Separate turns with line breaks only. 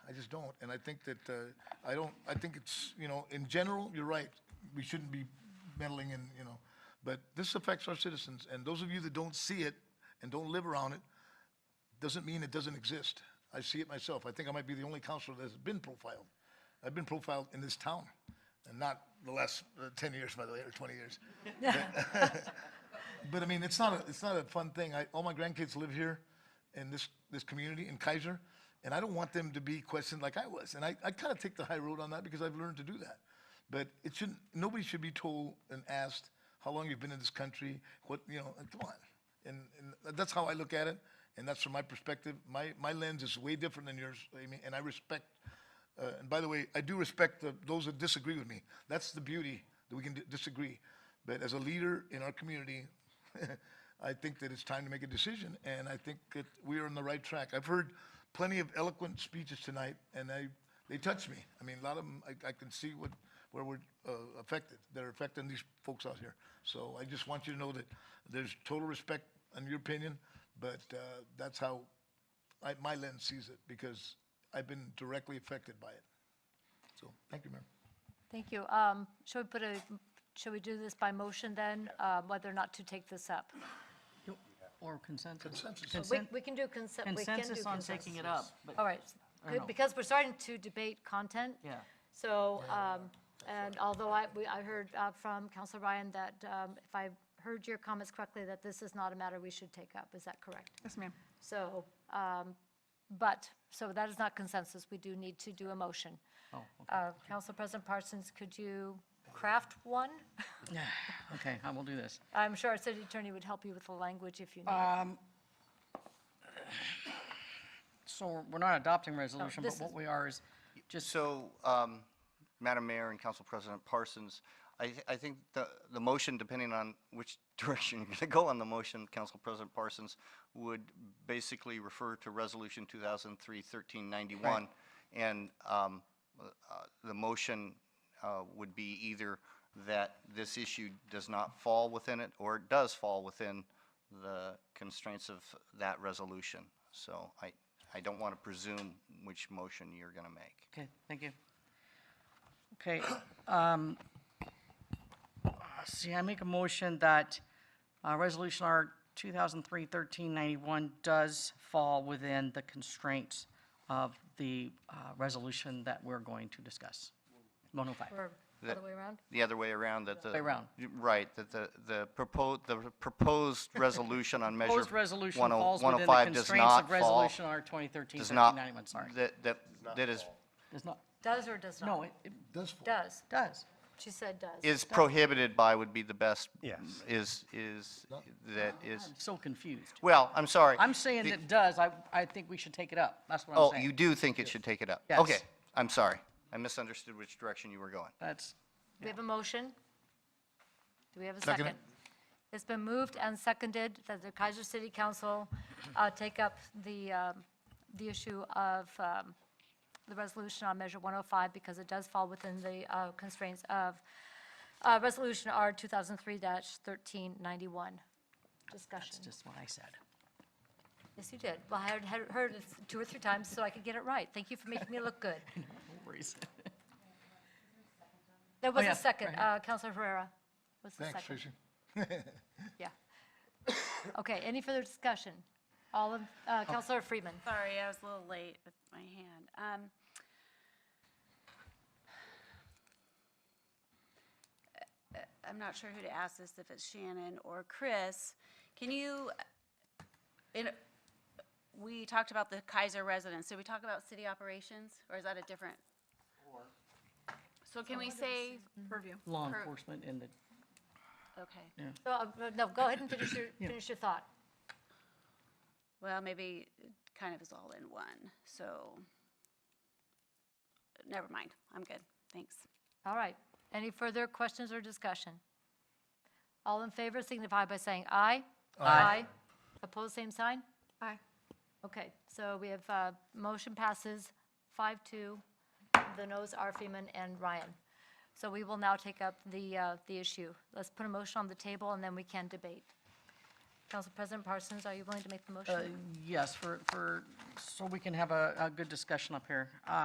I just don't. And I think that, uh, I don't, I think it's, you know, in general, you're right. We shouldn't be meddling in, you know, but this affects our citizens. And those of you that don't see it and don't live around it, doesn't mean it doesn't exist. I see it myself. I think I might be the only counselor that's been profiled. I've been profiled in this town, and not the last uh, 10 years, by the way, or 20 years. But I mean, it's not, a it's not a fun thing. I, all my grandkids live here in this, this community in Kaiser, and I don't want them to be questioned like I was. And I, I kind of take the high road on that because I've learned to do that. But it shouldn't, nobody should be told and asked how long you've been in this country, what, you know, uh, come on. And, and that's how I look at it, and that's from my perspective. My, my lens is way different than yours, Amy, and I respect, uh, and by the way, I do respect the, those that disagree with me. That's the beauty, that we can di- disagree. But as a leader in our community, I think that it's time to make a decision, and I think that we are on the right track. I've heard plenty of eloquent speeches tonight, and I, they touch me. I mean, a lot of them, I, I can see what, where we're uh, affected, that are affecting these folks out here. So I just want you to know that there's total respect on your opinion, but uh, that's how I, my lens sees it, because I've been directly affected by it. So, thank you, Mayor.
Thank you. Um, Should we put a, should we do this by motion then, uh, whether or not to take this up?
Yep, Or consensus.
Consensus.
We
Consent-
we can do Oh. consent, we can do
Consensus on taking it up, but
All right,
Or
good,
no?
because we're starting to debate content.
Yeah.
So, um, and although I, we- I heard uh, from Counselor Ryan that, um, if I heard your comments correctly, that this is not a matter we should take up, is that correct?
Yes, ma'am.
So, um, but, so that is not consensus, we do need to do a motion.
Oh,
Uh, Council President Parsons, could you craft one?
okay, I will do this.
I'm sure our city attorney would help you with the language if you need.
So we're not adopting resolution, but
Oh, this
what
is-
we are is just,
So, um, Madam Mayor and Council President Parsons, I, th- I think the, the motion, depending on which direction you're going to go on the motion, Council President Parsons, would basically refer to Resolution 2003-1391. And um, uh, the motion uh, would be either that this issue does not fall within it, or it does fall within the constraints of that resolution. So I, I don't want to presume which motion you're going to make.
okay, thank you. Okay, um, uh, see, I make a motion that uh, Resolution R 2003-1391 does fall within the constraints of the uh, resolution that we're going to discuss. 105.
Or
that-
other way around?
The other way around, that the.
way around.
Y- Right, that the, the proposed, the proposed resolution on measure. oh,
Proposed resolution
10
falls within the
105 does
constraints
not
of
fall-
Resolution R 2013
Does not,
1391, sorry.
that, that, that is,
Does not,
Does or does not?
no, it it
Does fall.
Does.
does.
She said does.
is prohibited by would be the best.
Yes.
Is, is, that is,
I'm so confused.
well, I'm sorry.
I'm saying
The-
that does, I, I think we should take it up. That's what I'm
Oh,
saying.
you do think it should take it up?
Yes.
Okay, I'm sorry. I misunderstood which direction you were going.
That's,
We have a motion? Do we have a
Second.
second? It's been moved and seconded that the Kaiser City Council uh, take up the, um, the issue of um, the resolution on Measure 105 because it does fall within the uh, constraints of uh, Resolution R 2003-1391. Discussion.
that's just what I said.
Yes, you did. Well, I had had heard it two or three times, so I could get it right. Thank you for making me look good.
No worries.
There was
Oh, yeah,
a second.
right
Uh, Counselor Herrera was the
Thanks,
second.
Tracy.
Yeah. Okay, any further discussion? All of, uh, Counselor Freeman.
Sorry, I was a little late with my hand. Um, uh, I'm not sure who to ask this, if it's Shannon or Chris. Can you, uh, in, we talked about the Kaiser residents. Did we talk about city operations, or is that a different? So can we say,
Purview.
Law
Per-
enforcement and the,
Mm-hmm. okay,
So, uh, No, go ahead and finish your, finish your thought.
well, maybe it kind of is all in one, so, never mind, I'm good, thanks.
All right. Any further questions or discussion? All in favor signify by saying aye. Aye. Opposed, same sign?
Aye.
Okay, so we have, uh, motion passes 5-2. The noes are Freeman and Ryan. So we will now take up the, uh, the issue. Let's put a motion on the table, and then we can debate. Council President Parsons, are you willing to make the motion?
yes, for, for, so we can have a, a good discussion up here. Uh,